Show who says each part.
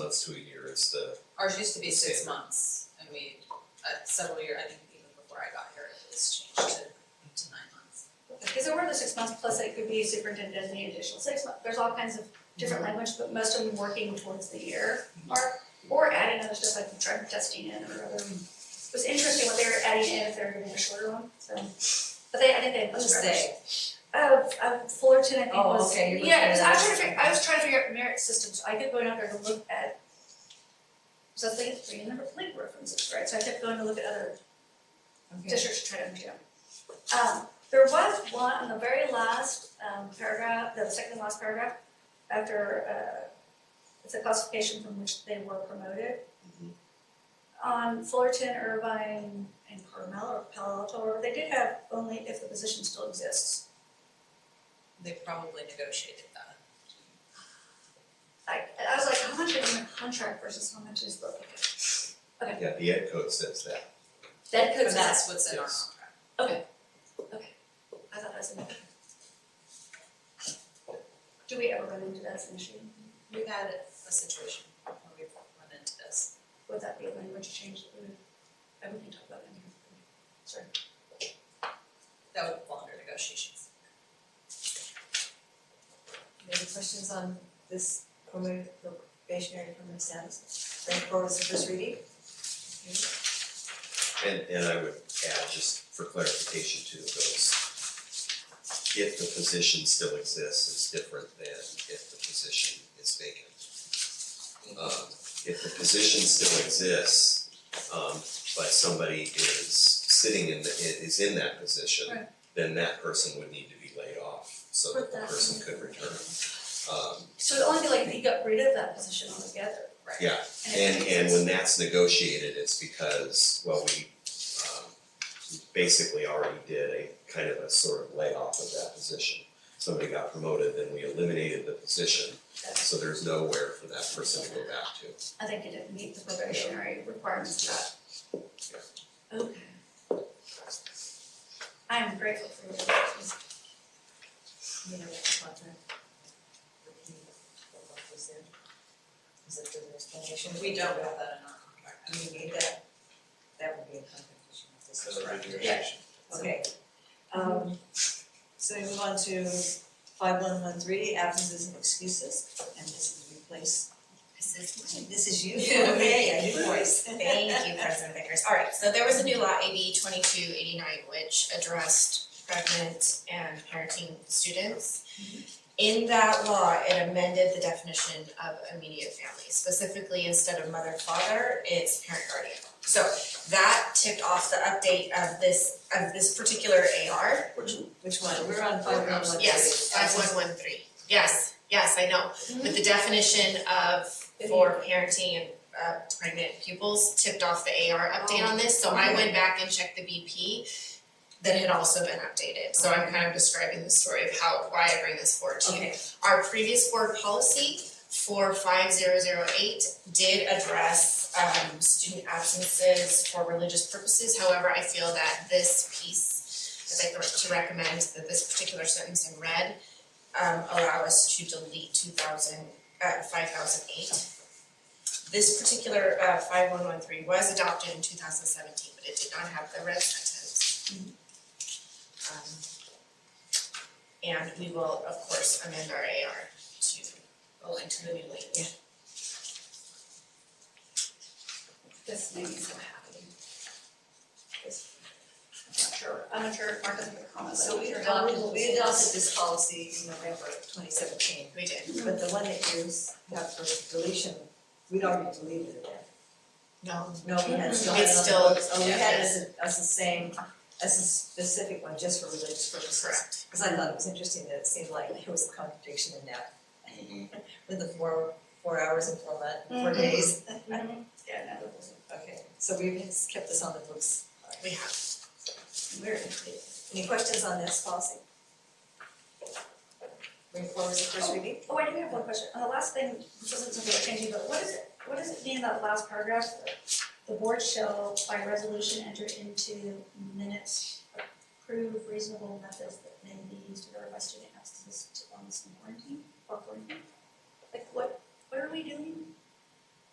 Speaker 1: months to a year is the,
Speaker 2: Ours used to be six
Speaker 1: Standard.
Speaker 2: months, and we, uh, several year, I think even before I got here, it was changed to, to nine months.
Speaker 3: Because there were the six months, plus it could be superintendent designated additional six months, there's all kinds of different
Speaker 2: Mm-hmm.
Speaker 3: language, but most of them working towards the year mark. Or adding other stuff like drug testing in or other, it was interesting what they were adding in if they were giving a shorter one, so. But they, I think they had.
Speaker 2: What is
Speaker 3: much
Speaker 2: they?
Speaker 3: Uh, uh, Fullerton, I think
Speaker 2: Oh,
Speaker 3: was,
Speaker 2: okay, you're
Speaker 3: yeah, because I was
Speaker 2: looking at
Speaker 3: trying to, fig- I was trying to figure out merit systems, I kept going out there to look at. So I was like, three number link references, right, so I kept going to look at other districts to try to understand. Um, there was one, on the very last, um, paragraph, the second last paragraph, after, uh, it's a classification from which they were promoted. On Fullerton, Irvine, and Carmel, or Palo Alto, or they did have only if the position still exists.
Speaker 2: They probably negotiated that.
Speaker 3: I, I was like, how much is in the contract versus how much is the,
Speaker 1: yeah, the ed code says that.
Speaker 3: that could
Speaker 2: But that's what's in our
Speaker 1: Yes.
Speaker 2: contract.
Speaker 3: I thought that was an. Do we ever run into that as an issue?
Speaker 2: We've had a situation where we've run into this.
Speaker 3: Would that be a language change that we would, that we can talk about in here? Sorry.
Speaker 2: That would fall under negotiations.
Speaker 4: Any questions on this promo- probationary permanent status? Bring forward as a first reading?
Speaker 1: And, and I would add, just for clarification to those, if the position still exists, is different than if the position is vacant. Um, if the position still exists, um, but somebody is sitting in the, is in that position,
Speaker 3: Right.
Speaker 1: then that person would need to be laid off, so that the
Speaker 3: But that-
Speaker 1: person could return. Um,
Speaker 3: So it'd only be like if you got rid of that position altogether, right?
Speaker 1: Yeah,
Speaker 3: And it
Speaker 1: And and
Speaker 3: exists.
Speaker 1: when that's negotiated, it's because, well, we um we basically already did a kind of a sort of layoff of that position. Somebody got promoted, then we eliminated the position, so there's nowhere for that person to go back to.
Speaker 3: I think it didn't meet the probationary requirements of that. Okay. I am grateful for your questions.
Speaker 4: You know, which contract? Was there? Is it further explanation?
Speaker 2: We don't have that in our contract.
Speaker 4: Do you need that? That would be a contract issue if this is correct. Okay. Um, so we move on to five one one three, absences and excuses, and this is replace. This is, this is you.
Speaker 5: Yeah.
Speaker 4: Okay, a new voice.
Speaker 5: Thank you, President Vickers. All right, so there was a new law, AB twenty-two eighty-nine, which addressed pregnant and parenting students. In that law, it amended the definition of immediate family, specifically instead of mother, father, it's parent guardian. So that tipped off the update of this, of this particular AR.
Speaker 4: Which one? We're on five one one three.
Speaker 5: Yes, five one one three. Yes, yes, I know.
Speaker 4: Mm-hmm.
Speaker 5: But the definition of for parenting and uh pregnant pupils tipped off the AR update on this, so
Speaker 4: Oh.
Speaker 5: I went back and checked the BP that had also been updated, so I'm kind of describing the story of how, why I bring this forward to you.
Speaker 4: Okay,
Speaker 5: Our previous board policy for five zero zero eight did address um student absences for religious purposes, however, I feel that this piece I'd like to recommend that this particular sentence in red um allow us to delete two thousand uh five thousand eight. This particular uh five one one three was adopted in two thousand seventeen, but it did not have the red sentence. Um and we will, of course, amend our AR to align to the new language.
Speaker 3: This made me so happy. This, I'm not sure, I'm not sure if Mark has a comment,
Speaker 4: so we
Speaker 3: are
Speaker 4: adopted, we adopted this policy in November twenty seventeen,
Speaker 5: We did.
Speaker 4: but the one that you have for deletion, we'd already deleted it.
Speaker 5: No.
Speaker 4: No, we had still had
Speaker 5: It's
Speaker 4: it on
Speaker 5: still-
Speaker 4: the books, oh, we had it
Speaker 5: yeah.
Speaker 4: as a, as the same, as a specific one, just for religious purposes.
Speaker 5: Correct.
Speaker 4: Cause I thought it was interesting that it seemed like there was a contradiction in that,
Speaker 5: Mm-hmm.
Speaker 4: with the four, four hours and four month, four
Speaker 3: Mhm.
Speaker 4: days.
Speaker 3: Yeah, no,
Speaker 4: Okay, so we've kept this on the books, alright,
Speaker 5: We have.
Speaker 4: we're, any questions on this policy? Bring forward the first reading?
Speaker 3: Oh, I do have one question, on the last thing, this isn't something we're changing, but what is it, what does it mean in that last paragraph? The board shall by resolution enter into minutes, approve reasonable methods that may be used to verify student absences to wellness and quarantine, or quarantine? Like what, what are we doing?